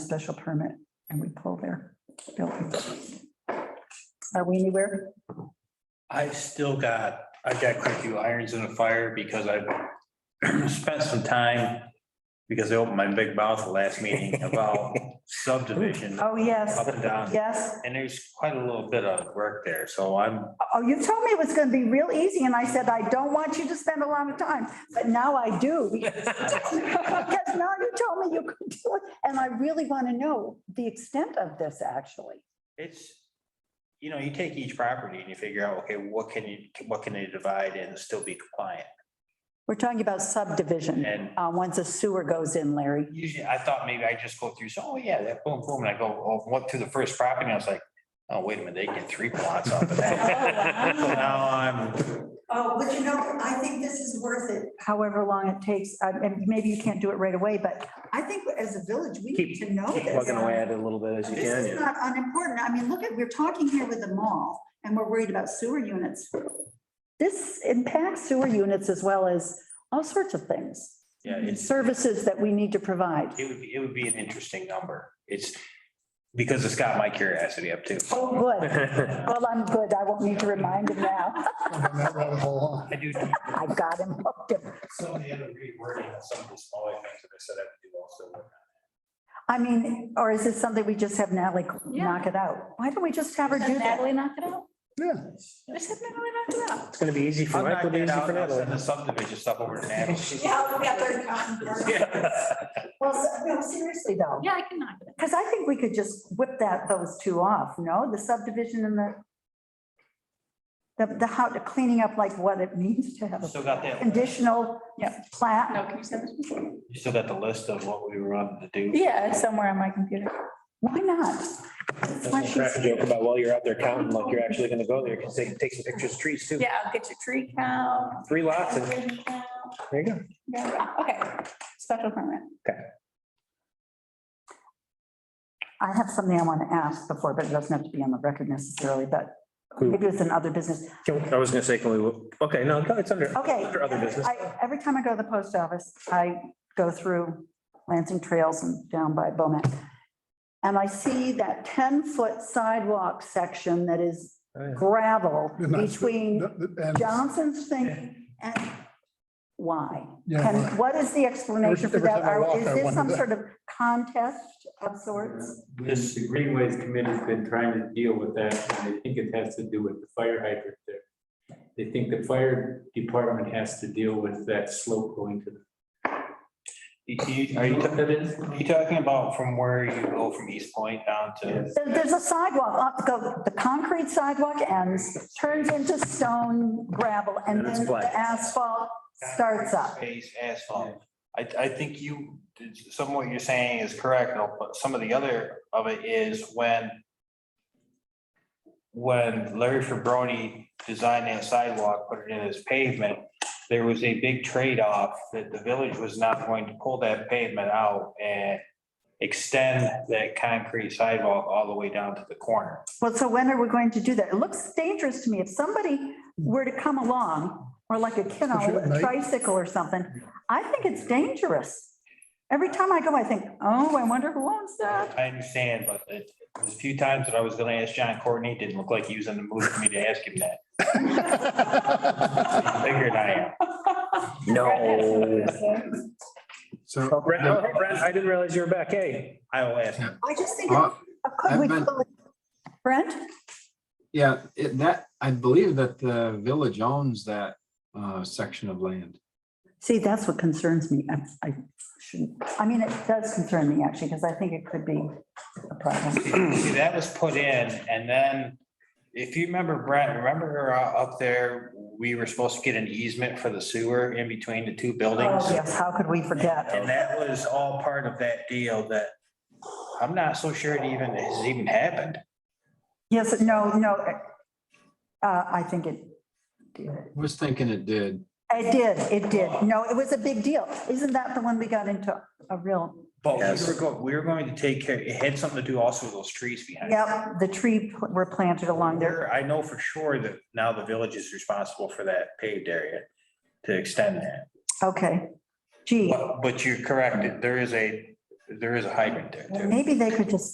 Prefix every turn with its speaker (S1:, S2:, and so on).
S1: special permit and we pull their building. Are we anywhere?
S2: I still got, I got quite a few irons in the fire because I spent some time, because I opened my big mouth the last meeting about subdivision
S1: Oh, yes,
S2: up and down.
S1: yes.
S2: And there's quite a little bit of work there, so I'm,
S1: Oh, you told me it was gonna be real easy and I said, I don't want you to spend a lot of time, but now I do. Because now you told me you could do it and I really want to know the extent of this actually.
S2: it's, you know, you take each property and you figure out, okay, what can you, what can they divide and still be compliant?
S1: We're talking about subdivision,
S2: And
S1: uh, once a sewer goes in, Larry.
S2: usually I thought maybe I just go through, so, oh yeah, that boom, boom, and I go, oh, went through the first property, and I was like, oh, wait a minute, they get three plots off of that.
S1: Oh,
S2: So Now I'm,
S3: Oh, but you know, I think this is worth it.
S1: however long it takes, uh, and maybe you can't do it right away, but
S3: I think as a village, we need
S4: Keep,
S3: to know
S4: keep
S3: this.
S4: plugging away at it a little bit as you
S3: This is
S4: can.
S3: not unimportant. I mean, look at, we're talking here with the mall and we're worried about sewer units.
S1: this impacts sewer units as well as all sorts of things.
S2: yeah, it's,
S1: Services that we need to provide.
S2: it would, be it would be an interesting number. It's, because it's got my curiosity up too.
S1: Oh, good. Well, I'm good. I won't need to remind him now.
S2: I do.
S1: I got him hooked. him.
S2: Some of the other rewording, of some of the smaller things that I said I would do also.
S1: I mean, or is this something we just have Natalie knock it out? Why don't we just have her do that?
S5: Natalie knock it out?
S4: Yeah,
S5: Just have Natalie knock it out.
S4: it's gonna be easy for
S2: I'll knock
S4: Michael,
S2: that
S4: easy
S2: out,
S4: for
S2: and I'll send
S4: Natalie.
S2: the subdivision stuff over to Natalie.
S3: Yeah, we got their
S2: Yeah.
S1: Well, no, seriously though,
S5: Yeah, I can knock it
S1: because I think we could just whip that, those two off, no? The subdivision and the the, the how, the cleaning up like what it means to have a
S2: Still got that,
S1: conditional
S5: out. No,
S1: plat.
S5: can you send this?
S2: you still got the list of what we were on to do.
S5: Yeah, it's somewhere on my computer.
S1: Why not? That's why she's-
S4: Joke about while you're out there counting, like you're actually gonna go there, because they can take some pictures of trees too.
S5: Yeah, I'll get your tree count.
S4: Three lots and
S5: tree count.
S4: there you go.
S5: Yeah, Okay, special permit.
S1: I have something I want to ask before, but it doesn't have to be on the record necessarily, but
S4: Cool.
S1: maybe it's in other business.
S4: Can- I was gonna say, can we, okay, no, it's under,
S1: Okay.
S4: under other business.
S1: I, every time I go to the post office, I go through Lansing Trails and down by Bowman. And I see that ten-foot sidewalk section that is
S4: Oh, yeah.
S1: gravel
S6: And that's-
S1: between
S6: Th- th- And
S1: Johnson's thing and why?
S6: yeah,
S1: And what is the explanation for
S6: Every-
S1: that?
S6: every time I
S1: Are-
S6: walk,
S1: Is
S6: I
S1: this
S6: wonder
S1: some
S6: that.
S1: sort of contest of sorts?
S7: This the Greenways Committee's been trying to deal with that, and they think it has to do with the fire hydrant there. They think the fire department has to deal with that slope going to the.
S2: You- you- Are you,
S7: What
S2: are
S7: that is?
S2: you talking about from where you go from East Point down to?
S1: There- There's a sidewalk, up go- the concrete sidewalk ends, turns into stone gravel, and
S4: And it's
S1: then
S4: flat.
S1: the asphalt starts up.
S2: Space asphalt. I, I think you, some of what you're saying is correct, but some of the other of it is when when Larry Fabroni designed that sidewalk, put it in as pavement, there was a big trade-off that the village was not going to pull that pavement out and extend that concrete sidewalk all the way down to the corner.
S1: Well, so when are we going to do that? It looks dangerous to me. If somebody were to come along, or like a kid on
S6: Especially at
S1: a
S6: night.
S1: tricycle or something, I think it's dangerous. Every time I go, I think, oh, I wonder who owns that.
S2: I understand, but it it was a few times that I was gonna ask John Courtney, it didn't look like he was in the mood for me to ask him that. Figured I Oh.
S4: No.
S6: so
S4: Oh, Brent, oh, Brent, I didn't realize you were back. Hey,
S2: am. I will ask him.
S1: I just think,
S8: Uh,
S1: could we,
S8: I've been-
S1: Brent?
S8: Yeah, it, that, I believe that the village owns that, uh, section of land.
S1: See, that's what concerns me. I- I shouldn't, I mean, it does concern me actually, because I think it could be a problem.
S2: See, that was put in and then if you remember Brent, remember uh, up there, we were supposed to get an easement for the sewer in between the two buildings?
S1: Oh, yes, how could we forget?
S2: And that was all part of that deal that I'm not so sure it even has even happened.
S1: Yes, no, no. Uh, I think it did.
S8: Was thinking it did.
S1: It did, it did. No, it was a big deal. Isn't that the one we got into a real,
S2: But we
S4: Yes.
S2: were going, we were going to take care, it had something to do also with those trees behind. it.
S1: yep, the tree pl- were planted along there.
S2: There, I know for sure that now the village is responsible for that paved area to extend that.
S1: Okay. Gee,
S2: But, but you're correct, there is a,
S9: there is a hydrant there too.
S2: Maybe they could just